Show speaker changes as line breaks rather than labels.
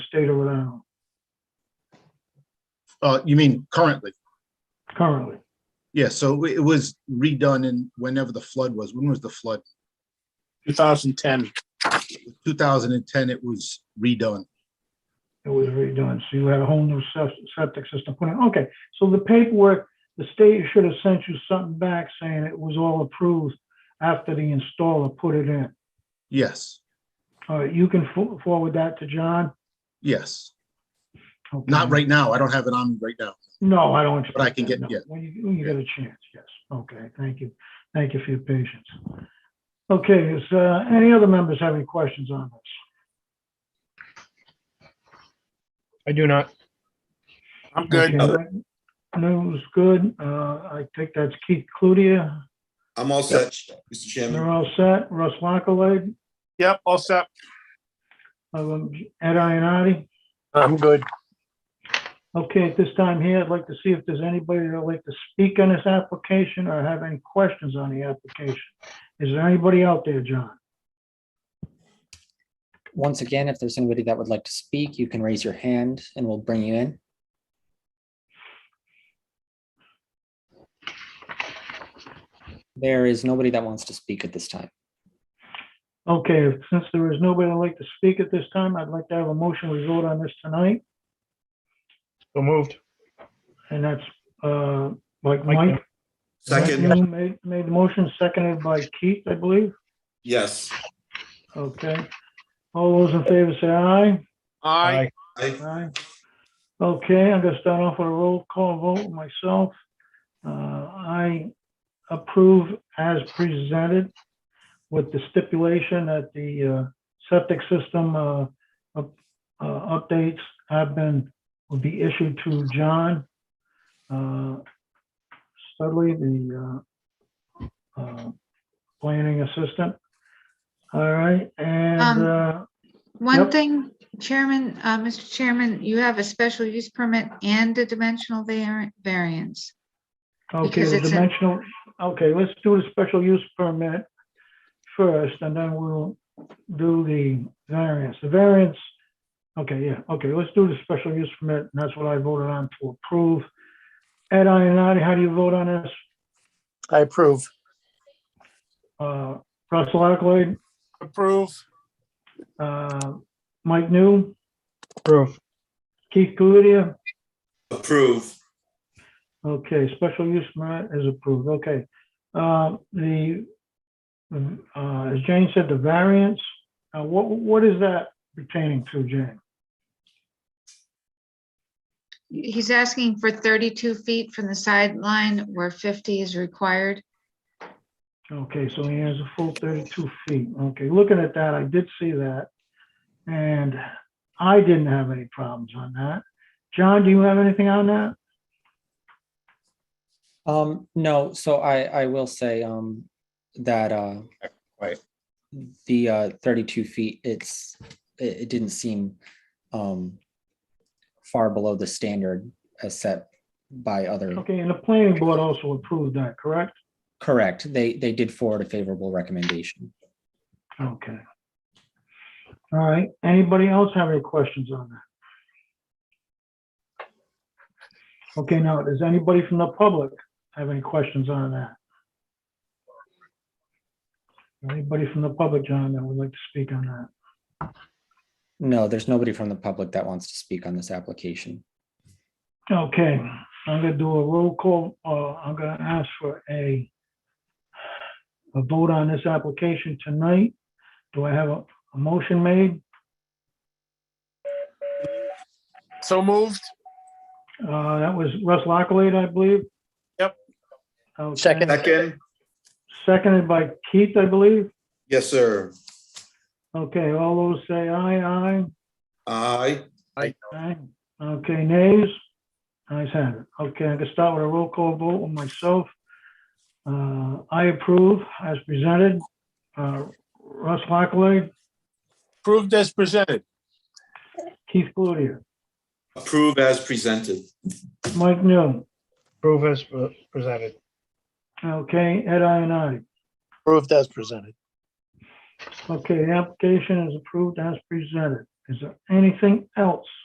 state of Rhode Island
Uh, you mean currently?
currently.
Yeah, so it was redone in whenever the flood was. When was the flood?
2010.
2010, it was redone.
It was redone. So you had a whole new sep- septic system put in. Okay, so the paperwork, the state should have sent you something back saying it was all approved after the installer put it in.
Yes,
All right, you can fo- forward that to John?
yes.
Okay.
Not right now. I don't have it on me right now.
No, I don't.
But I can
expect that,
get-
no.
yeah.
When you, when you get a chance, yes. Okay, thank you. Thank you for your patience. Okay, is, uh, any other members have any questions on this?
I do not.
I'm good.
Okay, News, good. Uh, I think that's Keith Cludier.
I'm all set, Mr.
They're
Chairman.
all set. Russ Lockley,
Yep, all set.
um, Ed Ionati.
I'm good.
Okay, at this time here, I'd like to see if there's anybody that'd like to speak on this application or have any questions on the application. Is there anybody out there, John?
Once again, if there's anybody that would like to speak, you can raise your hand and we'll bring you in. There is nobody that wants to speak at this time.
Okay, since there is nobody that'd like to speak at this time, I'd like to have a motion. We vote on this tonight,
So moved.
and that's, uh, like
Mike.
Mike.
Second,
Mike Noon Made, made the motion, seconded by Keith, I believe.
yes.
Okay. All those in favor say aye.
Aye.
I,
Aye. Okay, I'm gonna start off with a roll call vote myself. Uh, I approve as presented with the stipulation that the uh, septic system uh, up- uh, updates have been, will be issued to John uh, Studley, the uh, uh, planning assistant. All right, and
Um,
uh,
One
Yep.
thing, Chairman, uh, Mr. Chairman, you have a special use permit and a dimensional var- variance.
Okay,
because
the
it's in-
dimensional, okay, let's do the special use permit first, and then we'll do the variance. The variance, okay, yeah, okay, let's do the special use permit, and that's what I voted on to approve. Ed Ionati, how do you vote on this?
I approve.
Uh, Russell Ackley,
Approve.
uh, Mike New,
Approve.
Keith Cludier?
approve.
Okay, special use permit is approved, okay. Uh, The, uh, as Jane said, the variance, uh, what, what is that pertaining to, Jane?
He's asking for 32 feet from the sideline where 50 is required.
Okay, so he has a full 32 feet, okay, looking at that, I did see that. And I didn't have any problems on that. John, do you have anything on that?
Um, no, so I, I will say, um, that, uh,
Right.
the, uh, thirty-two feet, it's, it, it didn't seem, um, far below the standard as set by other,
Okay, and the planning board also approved that, correct?
correct, they, they did forward a favorable recommendation.
Okay. All right, anybody else have any questions on that? Okay, now, does anybody from the public have any questions on that? Anybody from the public, John, that would like to speak on that?
No, there's nobody from the public that wants to speak on this application.
Okay, I'm gonna do a roll call, uh, I'm gonna ask for a a vote on this application tonight. Do I have a, a motion made?
So moved.
Uh, that was Russ Lockley, I believe.
Yep.
Okay.
Second.
Second,
Seconded by Keith, I believe.
yes, sir.
Okay, all those say aye, aye,
I,
aye. Okay, nays? Ayes have it. Okay, I can start with a roll call vote with myself. Uh, I approve as presented. Uh, Russ Lockley,
Approved as presented.
Keith Cludier,
approve as presented.
Mike New,
Approve as pre- presented.
okay, Ed Ionati.
Approved as presented.
Okay, the application is approved as presented. Is there anything else?